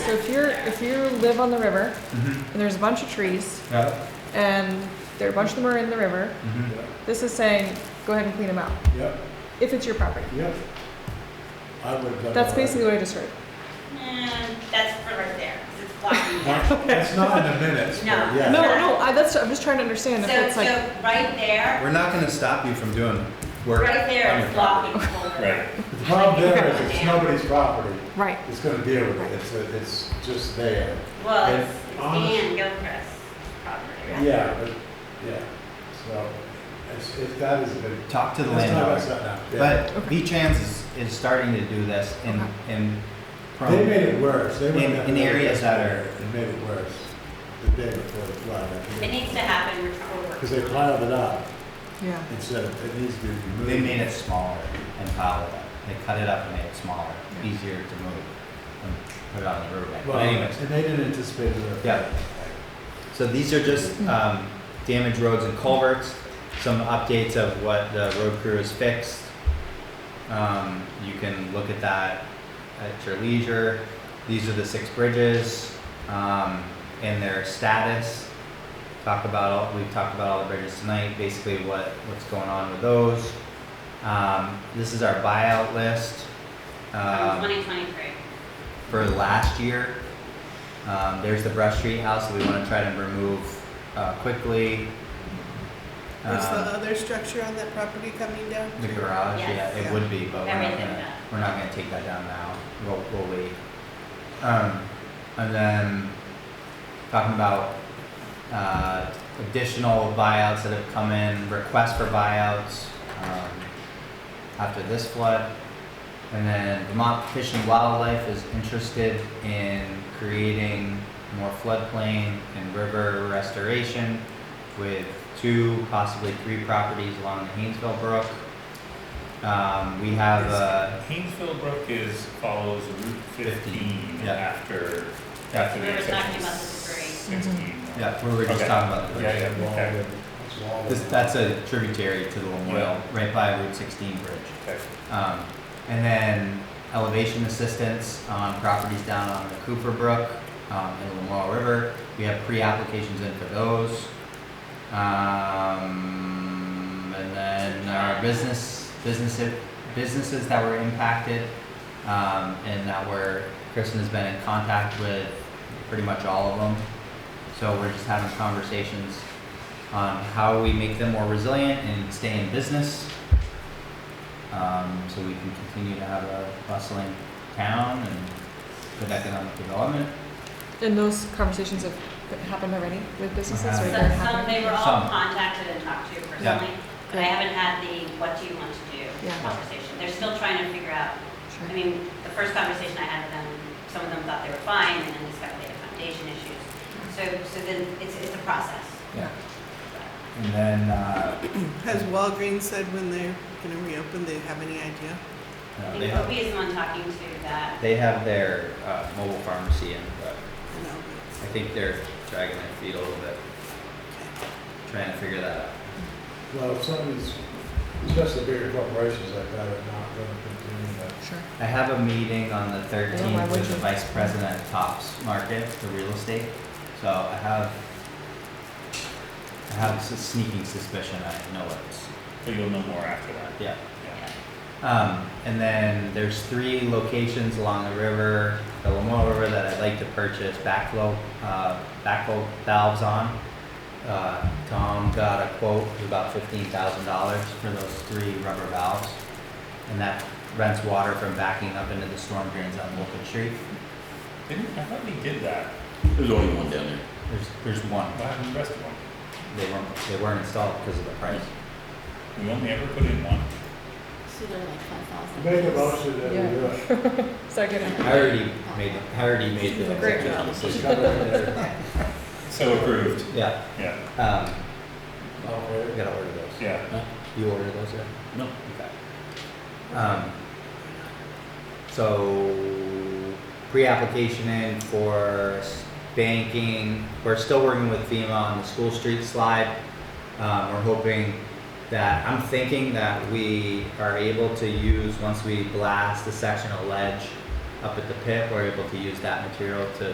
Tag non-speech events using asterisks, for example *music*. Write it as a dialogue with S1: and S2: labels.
S1: So if you're, if you live on the river,
S2: Mhm.
S1: and there's a bunch of trees,
S2: Yeah.
S1: and there are a bunch of them are in the river,
S3: Mm-hmm.
S2: Mhm.
S1: this is saying, go ahead and clean them out,
S3: Yep,
S1: if it's your property.
S3: yep. I would uh, have done.
S1: That's
S3: that.
S1: basically what I just heard.
S4: And that's for right there, 'cause it's
S3: *laughs*
S4: blocking that.
S3: Not- That's not in the minutes, but
S4: No.
S3: yeah.
S1: No, no, I, that's, I'm just trying to understand if
S4: So,
S1: it's like,
S4: so right there,
S2: We're not gonna stop you from doing work.
S4: right there
S2: on
S4: is
S2: your property.
S4: blocking Boulder.
S5: Right.
S3: The problem there is it's nobody's property.
S1: right,
S3: It's gonna deal with it. It's, uh, it's just there.
S4: Well, it's,
S3: And
S4: it's
S3: honest-
S4: Dan Gilchrist property, right?
S3: Yeah, but, yeah. So, it's, it, that is a big.
S6: talk to the
S3: Let's talk about
S6: landowner.
S3: that now. Yeah.
S6: But V-Trans is, is starting to do this in, in. from-
S3: They made it worse. They went
S6: In-
S3: down
S6: in
S3: there.
S6: areas that are-
S3: They made it worse the day before the flood.
S4: It needs to happen before.
S3: Because they piled it up
S1: yeah.
S3: instead of, it needs to be removed.
S6: They made it smaller and followed it. They cut it up and made it smaller, easier to move and put it on the riverbank.
S3: Well,
S6: But anyways,
S3: and they didn't anticipate it.
S6: Yeah. so these are just, um, damaged roads and culverts, some updates of what the road crew has fixed. Um, you can look at that at your leisure. These are the six bridges, um, and their status. Talk about, all we've talked about all the bridges tonight, basically what, what's going on with those. Um, this is our buyout list. Um,
S4: Twenty twenty-three.
S6: for last year. Um, there's the Brush Street house that we want to try to remove uh, quickly.
S7: Is the
S6: Um,
S7: other structure on that property coming down?
S6: the garage,
S4: Yes.
S6: yeah, it would be, but we're not
S4: Everything
S6: gonna,
S4: done.
S6: we're not gonna take that down now. We'll, we'll wait. Um, and then talking about uh, additional buyouts that have come in, requests for buyouts um, after this flood. And then Vermont Fish and Wildlife is interested in creating more floodplain and river restoration with two, possibly three properties along the Haynesville Brook. Um, we have uh,
S5: Haynesville Brook is, follows Route fifteen
S6: Yeah.
S5: after, after
S4: We
S5: the
S4: were talking
S5: intersection
S4: about the three.
S5: sixteen.
S6: yeah, we were just
S5: Okay.
S6: talking about the
S5: Yeah, yeah.
S3: Wall
S5: Okay.
S3: with- it's wall
S6: This,
S3: with-
S6: that's a tributary to the Lamoille, right by Route 16 bridge.
S5: Okay.
S6: Um, and then elevation assistance on properties down on the Cooper Brook um, and the Lamoille River. We have pre-applications in for those. Um, and then our business businesses businesses that were impacted um, and that were Kristen has been in contact with pretty much all of them. So we're just having conversations on how we make them more resilient and stay in business. Um, so we can continue to have a bustling town and good economic development.
S1: And those conversations have happened already with businesses, or
S3: um,
S6: Uh-huh.
S1: they're
S4: So some,
S1: happening?
S4: they were all
S6: Some.
S4: contacted and talked to
S6: Yeah.
S4: personally, but I haven't had the what do you want to do
S1: Yeah.
S4: conversation. They're still trying to figure out
S1: Sure.
S4: I mean, the first conversation I had with them, some of them thought they were fine, and then discovered they had foundation issues. So, so then it's, it's a process.
S6: Yeah. And then, uh,
S7: Has Walgreens said when they're gonna reopen, they have any idea?
S4: I
S6: no, they
S4: think
S6: have,
S4: Opie is the one talking to that.
S6: they have their, uh, mobile pharmacy in, but
S7: No.
S6: I think they're dragging their feet a little bit, trying to figure that out.
S3: Well, if somebody's, especially bigger corporations like that are not going to continue that.
S1: Sure.
S6: I have a meeting on the
S1: Yeah, why
S6: thirteenth
S1: would
S6: with the
S1: you?
S6: vice president of Tops Market for real estate, so I have, I have a sneaking suspicion I know it's,
S5: But you'll know more after that.
S6: yeah.
S5: Yeah.
S6: Um, and then there's three locations along the river, the Lamoille River, that I'd like to purchase backflow, uh, backflow valves on. Uh, Tom got a quote of about fifteen thousand dollars for those three rubber valves. And that prevents water from backing up into the storm drains on Wolfen Street.
S5: Didn't, I thought they did that.
S8: There's only one down there.
S6: There's, there's one.
S5: What happened to the rest of them?
S6: They weren't, they weren't installed because of the price.
S5: We only ever put in one.
S9: So they're like five thousand.
S3: Make a motion that we uh, do it.
S1: Second.
S6: I already made, I already made the executive decision.
S3: Cover it there.
S5: So approved.
S6: Yeah,
S5: Yeah,
S6: um,
S3: Okay.
S6: I gotta order those.
S5: yeah.
S6: You order those, yeah?
S8: No.
S6: Okay. Um, so, pre-application in for s- banking, we're still working with FEMA on the school street slide. Um, we're hoping that, I'm thinking that we are able to use, once we blast the section of ledge, up at the pit, we're able to use that material to